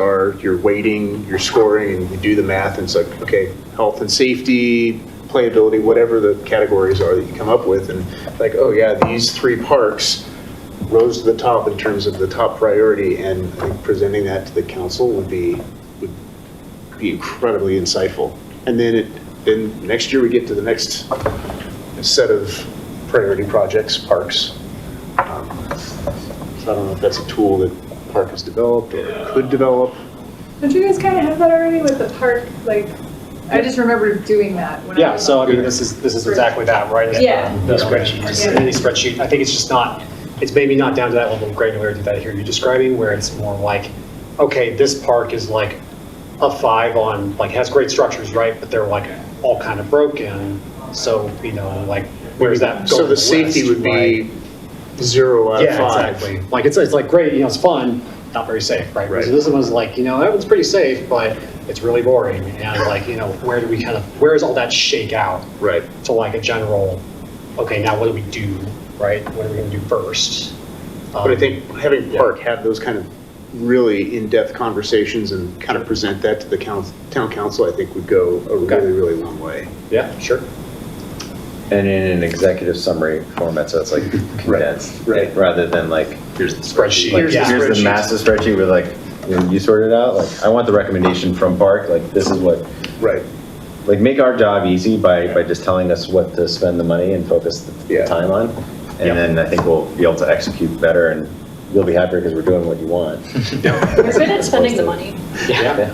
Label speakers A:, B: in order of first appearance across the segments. A: your, your weighting, your scoring, and you do the math, and it's like, okay, health and safety, playability, whatever the categories are that you come up with, and like, oh yeah, these three parks rose to the top in terms of the top priority, and I think presenting that to the council would be, would be incredibly insightful. And then it, then next year we get to the next set of priority projects, parks. Um, So I don't know if that's a tool that Park has developed or could develop.
B: Don't you guys kind of have that already with the park? Like, I just remember doing that when I
C: Yeah,
B: was
C: so I
B: on-
C: mean, this is, this is exactly that, right? It's the-
B: Yeah.
C: The spreadsheet, it's a
B: Yeah.
C: mini spreadsheet. I think it's just not, it's maybe not down to that level of granularity that here you're describing, where it's more like, okay, this park is like a five on, like, has great structures, right? But they're like all kind of broken, so, you know, like, where's that go
A: So
C: on
A: the safety
C: list,
A: would
C: right?
A: be zero out of
C: Yeah,
A: five.
C: exactly. Like, it's, it's like, great, you know, it's fun, not very safe, right?
A: Right.
C: So this one's like, you know, that one's pretty safe, but it's really boring. And like, you know, where do we kind of, where does all that shake out
A: Right.
C: to like a general, okay, now what do we do, right? What are we gonna do first?
A: But I
C: Um,
A: think having
C: yeah.
A: Park have those kind of really in-depth conversations and kind of present that to the coun- town council, I think would go a really, really long way.
C: Yeah, sure.
D: And in an executive summary format, so it's like condensed,
A: right.
D: rather than like,
A: Here's
C: Spreadsheet.
D: like,
A: Here's the
C: Yeah.
D: here's the
A: spreadsheet.
D: massive spreadsheet with like, you know, you sort it out, like, I want the recommendation from Park, like, this is what,
A: Right.
D: like, make our job easy by, by just telling us what to spend the money and focus the-
A: Yeah.
D: the time on.
C: Yeah.
D: And then I think we'll be able to execute better and you'll be happier because we're doing what you want.
E: We're good at spending the money.
C: Yeah,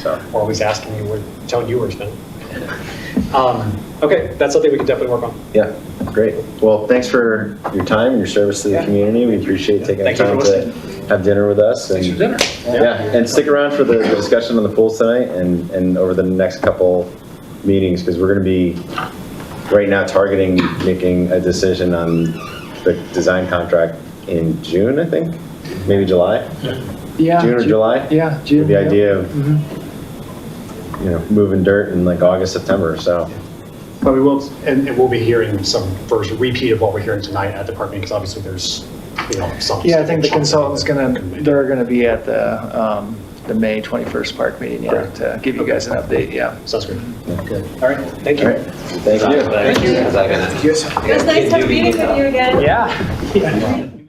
D: So,
C: or always asking you, what telling you where to spend. it. Um, Okay, that's something we can definitely work on.
D: yeah, great. Well, thanks for your time and your service to the
C: Yeah.
D: community. We appreciate taking the
C: Thank you for
D: time to have dinner with us. Thanks for dinner. Yeah, and stick around for the the discussion on the pools tonight and, and over the next couple meetings, because we're going to be, right now, targeting making a decision on the design contract in June, I think, maybe July,
F: Yeah.
D: June or
F: Ju-
D: July?
F: Yeah, Mm-hmm. June.
D: With the
F: yeah.
D: idea of,
F: Mhm.
D: you know, moving dirt in like August, September, so.
C: But we will, and, and we'll be hearing some first repeat of what we're hearing tonight at the department, because obviously there's, you know, some.
F: Yeah, I think the consultant's
C: something
F: gonna,
C: that can be-
F: they're gonna be at the, um, the May 21st park meeting, yeah,
C: Correct.
F: to give you guys an update, yeah.
C: Sounds good. All right, thank
D: All right,
C: you.
D: thank you.
B: It was nice to have a meeting with you again.
C: Yeah.
B: Thank